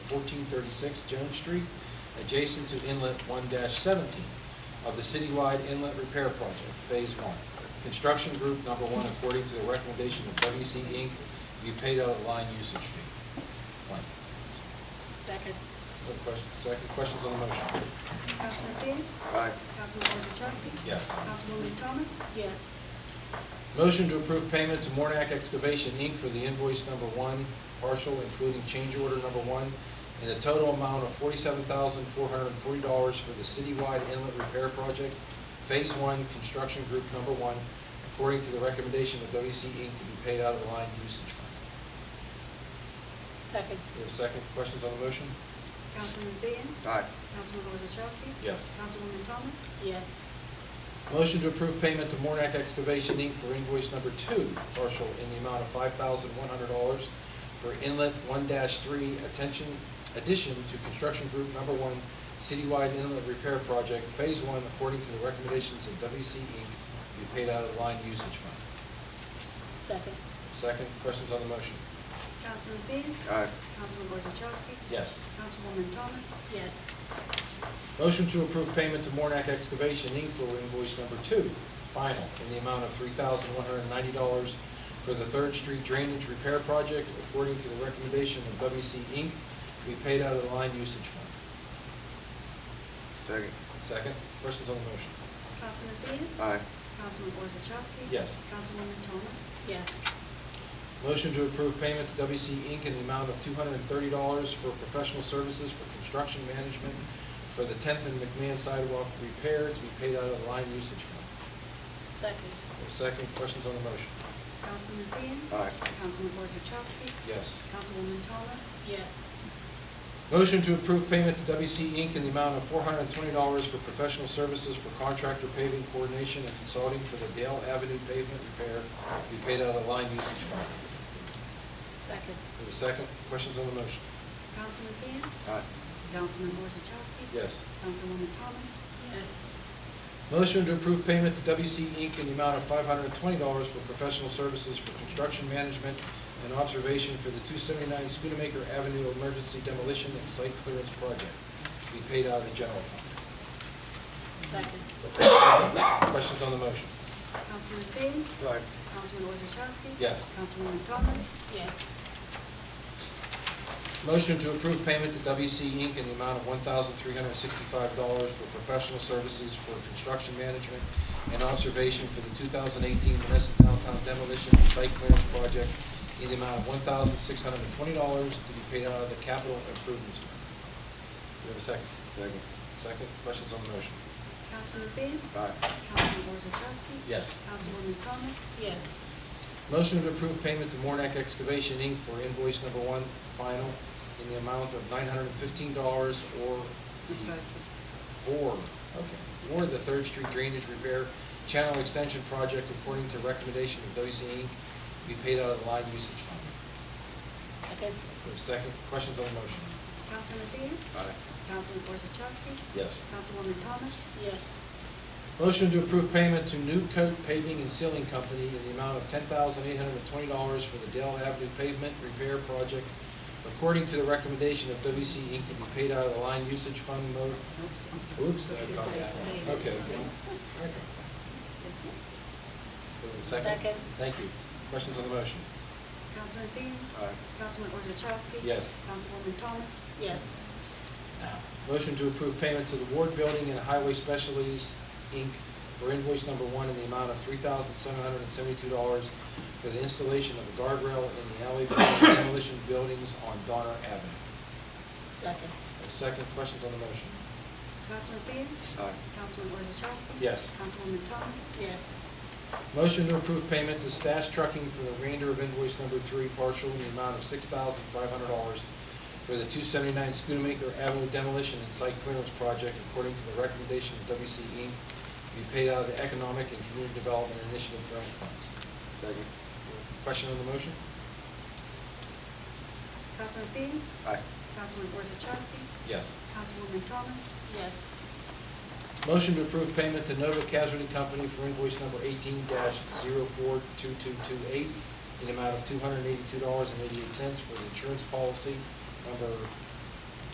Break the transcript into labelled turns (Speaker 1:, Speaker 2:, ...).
Speaker 1: 1436 Jones Street, adjacent to Inlet 1-17 of the citywide inlet repair project, Phase 1. Construction Group Number 1, according to the recommendation of WC Inc., you paid out a line usage fee. One.
Speaker 2: Second.
Speaker 1: Other questions, second, questions on the motion?
Speaker 3: Councilman Dean?
Speaker 4: Aye.
Speaker 3: Councilwoman Wozzachowski?
Speaker 1: Yes.
Speaker 3: Councilwoman Thomas?
Speaker 2: Yes.
Speaker 1: Motion to approve payment to Mornak Excavation Inc. for the invoice number one, partial including change order number one, in a total amount of forty-seven thousand, four hundred and forty dollars for the citywide inlet repair project, Phase One, Construction Group Number One, according to the recommendation of WC Inc. to be paid out of the line usage fund.
Speaker 2: Second.
Speaker 1: Do we have a second? Questions on the motion?
Speaker 3: Councilman Dean?
Speaker 4: Aye.
Speaker 3: Councilwoman Wozzachowski?
Speaker 1: Yes.
Speaker 3: Councilwoman Thomas?
Speaker 2: Yes.
Speaker 1: Motion to approve payment to Mornak Excavation Inc. for invoice number two, partial in the amount of five thousand one hundred dollars for inlet one three attention, addition to construction group number one citywide inlet repair project, phase one, according to the recommendations of WC Inc., to be paid out of the line usage fund.
Speaker 2: Second.
Speaker 1: Second, questions on the motion?
Speaker 3: Councilman Dean?
Speaker 4: Aye.
Speaker 3: Councilwoman Wozzachowski?
Speaker 1: Yes.
Speaker 3: Councilwoman Thomas?
Speaker 2: Yes.
Speaker 1: Motion to approve payment to Mornak Excavation Inc. for invoice number two, final, in the amount of three thousand one hundred and ninety dollars for the Third Street Drainage Repair Project, according to the recommendation of WC Inc., to be paid out of the line usage fund.
Speaker 4: Second.
Speaker 1: Second, questions on the motion?
Speaker 3: Councilman Dean?
Speaker 4: Aye.
Speaker 3: Councilwoman Wozzachowski?
Speaker 1: Yes.
Speaker 3: Councilwoman Thomas?
Speaker 2: Yes.
Speaker 1: Motion to approve payment to WC Inc. in the amount of two hundred and thirty dollars for professional services for construction management for the Tenth and McMahon sidewalk repair to be paid out of the line usage fund.
Speaker 2: Second.
Speaker 1: Second, questions on the motion?
Speaker 3: Councilman Dean?
Speaker 4: Aye.
Speaker 3: Councilwoman Wozzachowski?
Speaker 1: Yes.
Speaker 3: Councilwoman Thomas?
Speaker 2: Yes.
Speaker 1: Motion to approve payment to WC Inc. in the amount of four hundred and twenty dollars for professional services for contractor paving coordination and consulting for the Dale Avenue pavement repair to be paid out of the line usage fund.
Speaker 2: Second.
Speaker 1: Have a second? Questions on the motion?
Speaker 3: Councilman Dean?
Speaker 4: Aye.
Speaker 3: Councilman Wozzachowski?
Speaker 1: Yes.
Speaker 3: Councilwoman Thomas?
Speaker 2: Yes.
Speaker 1: Motion to approve payment to WC Inc. in the amount of five hundred and twenty dollars for professional services for construction management and observation for the two seventy-nine Schoonamaker Avenue emergency demolition and site clearance project to be paid out of the general fund.
Speaker 2: Second.
Speaker 1: Questions on the motion?
Speaker 3: Councilman Dean?
Speaker 4: Aye.
Speaker 3: Councilwoman Wozzachowski?
Speaker 1: Yes.
Speaker 3: Councilwoman Thomas?
Speaker 2: Yes.
Speaker 1: Motion to approve payment to WC Inc. in the amount of $1,365 for professional services for construction management and observation for the 2018 Menneson Downtown demolition and site clearance project in the amount of $1,620 to be paid out of the capital improvements. fund. Do we have a second?
Speaker 4: Second.
Speaker 1: Second, questions on the motion?
Speaker 3: Councilman Dean?
Speaker 4: Aye.
Speaker 3: Councilwoman Wozzachowski?
Speaker 1: Yes.
Speaker 3: Councilwoman Thomas?
Speaker 2: Yes.
Speaker 1: Motion to approve payment to Mornak Excavation Inc. for invoice number one, final, in the amount of $915 or the- or, okay, or the Third Street Drainage Repair Channel Extension Project according to recommendation of WC Inc. to be paid out of the line usage fund.
Speaker 2: Second.
Speaker 1: For a second, questions on the motion?
Speaker 3: Councilman Dean?
Speaker 4: Aye.
Speaker 3: Councilman Wozzachowski?
Speaker 1: Yes.
Speaker 3: Councilwoman Thomas?
Speaker 2: Yes.
Speaker 1: Motion to approve payment to New Coat Paving and Sealing Company in the amount of ten thousand eight hundred and twenty dollars for the Dale Avenue pavement repair project according to the recommendation of WC Inc. to be paid out of the line usage fund mode.
Speaker 3: Oops, I'm
Speaker 1: Oops. did I call
Speaker 2: It's
Speaker 1: that?
Speaker 2: me.
Speaker 1: Okay.
Speaker 2: Second.
Speaker 1: Thank you. Questions on the motion?
Speaker 3: Councilman Dean?
Speaker 4: Aye.
Speaker 3: Councilman Wozzachowski?
Speaker 1: Yes.
Speaker 3: Councilwoman Thomas?
Speaker 2: Yes.
Speaker 1: Motion to approve payment to the Ward Building and Highway Specialties, Inc., for invoice number one in the amount of three thousand seven hundred and seventy-two dollars for the installation of a guardrail in the alley between demolition buildings on Donner Avenue.
Speaker 2: Second.
Speaker 1: A Second, questions on the motion?
Speaker 3: Councilman Dean?
Speaker 4: Aye.
Speaker 3: Councilman Wozzachowski?
Speaker 1: Yes.
Speaker 3: Councilwoman Thomas?
Speaker 2: Yes.
Speaker 1: Motion to approve payment to Stash Trucking for the remainder of invoice number three, partial in the amount of six thousand five hundred dollars for the two seventy-nine Schoonamaker Avenue demolition and site clearance project according to the recommendation of WC Inc. to be paid out of the Economic and Community Development Initiative grant funds.
Speaker 4: Second.
Speaker 1: Question on the motion?
Speaker 3: Councilman Dean?
Speaker 4: Aye.
Speaker 3: Councilman Wozzachowski?
Speaker 1: Yes.
Speaker 3: Councilwoman Thomas?
Speaker 2: Yes.
Speaker 1: Motion to approve payment to Nova Casualty Company for invoice number eighteen 42228 in the amount of two hundred and eighty-two dollars and eighty-eight cents for the insurance policy number